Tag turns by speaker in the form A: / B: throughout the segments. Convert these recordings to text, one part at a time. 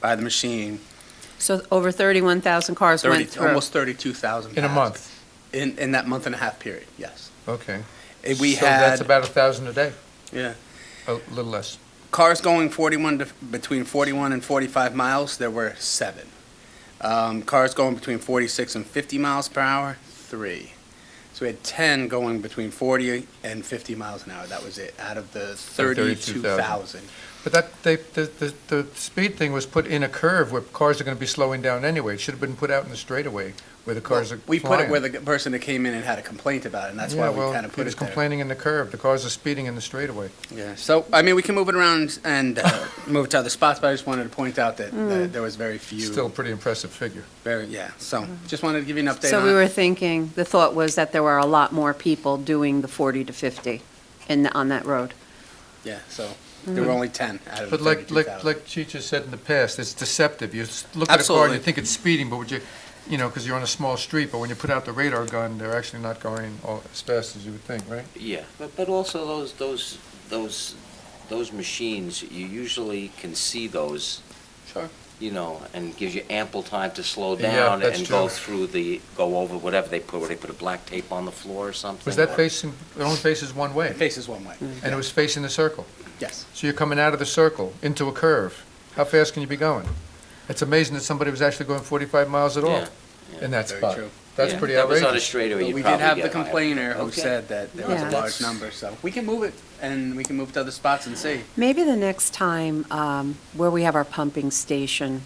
A: by the machine.
B: So over 31,000 cars went
A: 30,
B: through.
A: almost 32,000.
C: In a
A: passed.
C: month?
A: In, in that month and a half period, yes.
C: Okay.
A: Eh, We
C: So that's
A: had
C: about a thousand a day?
A: Yeah.
C: A little less.
A: cars going 41, to- between 41 and 45 miles, there were seven. Um, Cars going between 46 and 50 miles per hour, three. So we had 10 going between 40 and 50 miles an hour. That was it, out of the 32,000.
C: But that, they, the, the, the speed thing was put in a curve where cars are gonna be slowing down anyway. It should have been put out in the straightaway where the cars are flying.
A: We put it where the person that came in and had a complaint about it, and that's why
C: Yeah,
A: we
C: well,
A: kind of
C: he
A: put
C: was
A: it there.
C: complaining in the curve. The cars are speeding in the straightaway.
A: Yeah, so, I mean, we can move it around and uh, move it to other spots, but I just wanted to point out that
B: Mm.
A: that there was very few.
C: Still a pretty impressive figure.
A: Very, yeah, so, just wanted to give you an update
B: Mm-hmm. So
A: on
B: we
A: it.
B: were thinking, the thought was that there were a lot more people doing the 40 to 50 in, on that road.
A: Yeah, so
B: Mm-hmm.
A: there were only 10 out of the
C: But like,
A: 32,000.
C: like, like Chicha said in the past, it's deceptive. You s- look at a car and
A: Absolutely.
C: you think it's speeding, but would you, you know, because you're on a small street, but when you put out the radar gun, they're actually not going all- as fast as you would think, right?
D: Yeah, but, but also those, those, those, those machines, you usually can see those,
A: Sure.
D: you know, and gives you ample time to slow
C: Yeah,
D: down
C: that's
D: and go
C: true.
D: through the, go over whatever they put, where they put a black tape on the floor or something.
C: Was that facing, it only faces one way,
A: It faces one way,
C: and it was facing the circle.
A: yes.
C: So you're coming out of the circle into a curve. How fast can you be going? It's amazing that somebody was actually going 45 miles at all
D: Yeah, yeah.
C: in that
A: Very
C: spot.
A: true.
C: That's
D: Yeah,
C: pretty
D: That was on a
C: outrageous.
D: straightaway,
A: But
D: you'd
A: we
D: probably
A: did
D: get
A: have
D: higher.
A: the complainer who
D: Okay.
A: said that there was
B: Yeah.
A: a large number, so we can move it, and we can move to other spots and see.
B: Maybe the next time, um, where we have our pumping station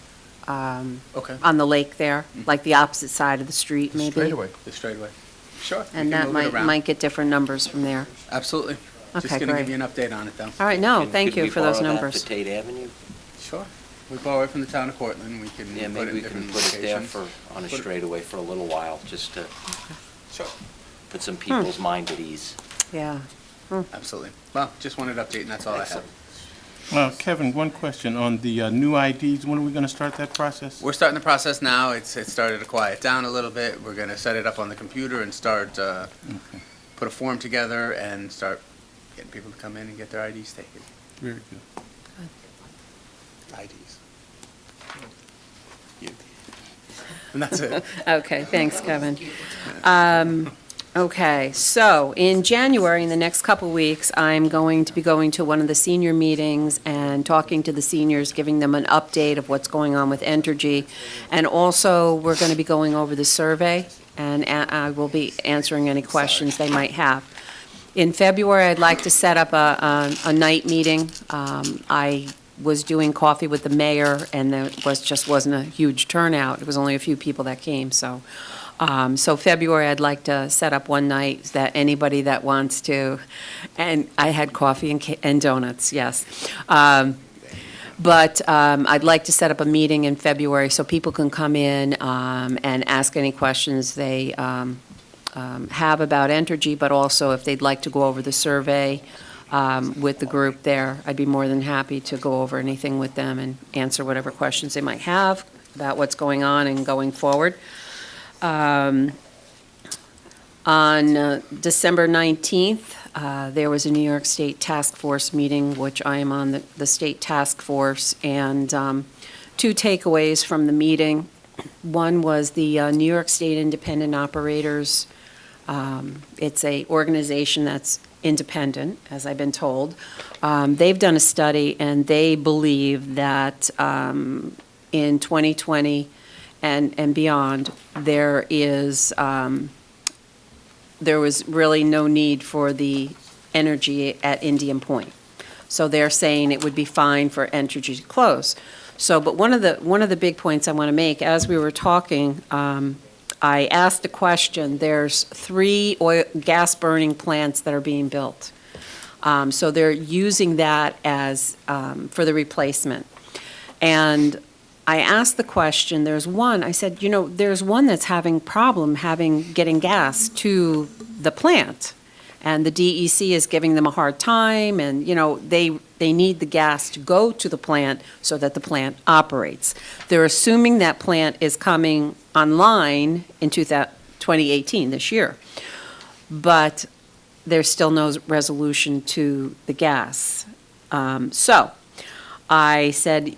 B: um,
A: Okay.
B: on the lake there, like the opposite side of the street, maybe.
C: Straightaway.
A: The straightaway. Sure. we can
B: And that
A: move it
B: might,
A: around.
B: might get different numbers from there.
A: Absolutely.
B: Okay,
A: Just going to
B: great.
A: give you an update on it, though.
B: All right, no,
D: Could-
B: Oh, thank
D: could
B: you
D: we
B: for those
D: borrow that
B: numbers.
D: for Tate Avenue?
A: Sure. We borrow it from the town of Cortland, we can put it
D: Yeah,
A: in
D: maybe we can
A: different
D: put it there
A: locations.
D: for, on a
A: Put it-
D: straightaway for a little while, just to
A: Sure,
D: put some people's
B: Hmm.
D: mind at ease.
B: Yeah.
A: absolutely. Well, just wanted to update, and that's all Oh, I have.
D: Excellent.
E: Uh, Kevin, one question on the uh, new IDs. When are we going to start that process?
A: We're starting the process now. It's, it started to quiet down a little bit. We're gonna set it up on the computer and start, uh, put a form together and start getting people to come in and get their IDs taken.
E: Very good.
A: IDs. You. And that's it.
B: Okay, thanks, Kevin. Um, Okay, so in January, in the next couple weeks, I'm going to be going to one of the senior meetings and talking to the seniors, giving them an update of what's going on with Entergy. And also, we're going to be going over the survey, and a- I will be answering any questions they might have. In February, I'd like to set up a, a- a night meeting. Um, I was doing coffee with the mayor, and there was, just wasn't a huge turnout. It was only a few people that came, so. um, So February, I'd like to set up one night that anybody that wants to, and I had coffee and ca- and donuts, yes. Um, but um, I'd like to set up a meeting in February so people can come in um, and ask any questions they um, um, have about Entergy, but also if they'd like to go over the survey um, with the group there, I'd be more than happy to go over anything with them and answer whatever questions they might have about what's going on and going forward. Um, On uh, December 19th, uh, there was a New York State Task Force meeting, which I am on the- the state task force, and um, two takeaways from the meeting. One was the uh, New York State Independent Operators. um, It's a organization that's independent, as I've been told. Um, They've done a study, and they believe that um, in 2020 and and beyond, there is, um, there was really no need for the energy at Indian Point. So they're saying it would be fine for Entergy to close. So, but one of the, one of the big points I want to make, as we were talking, um, I asked a question, there's three oil, gas-burning plants that are being built. Um, So they're using that as, um, for the replacement. And I asked the question, there's one, I said, you know, there's one that's having problem having, getting gas to the plant. And the DEC is giving them a hard time, and, you know, they, they need the gas to go to the plant so that the plant operates. They're assuming that plant is coming online in 2000 2018, this year. But there's still no resolution to the gas. Um, So I said,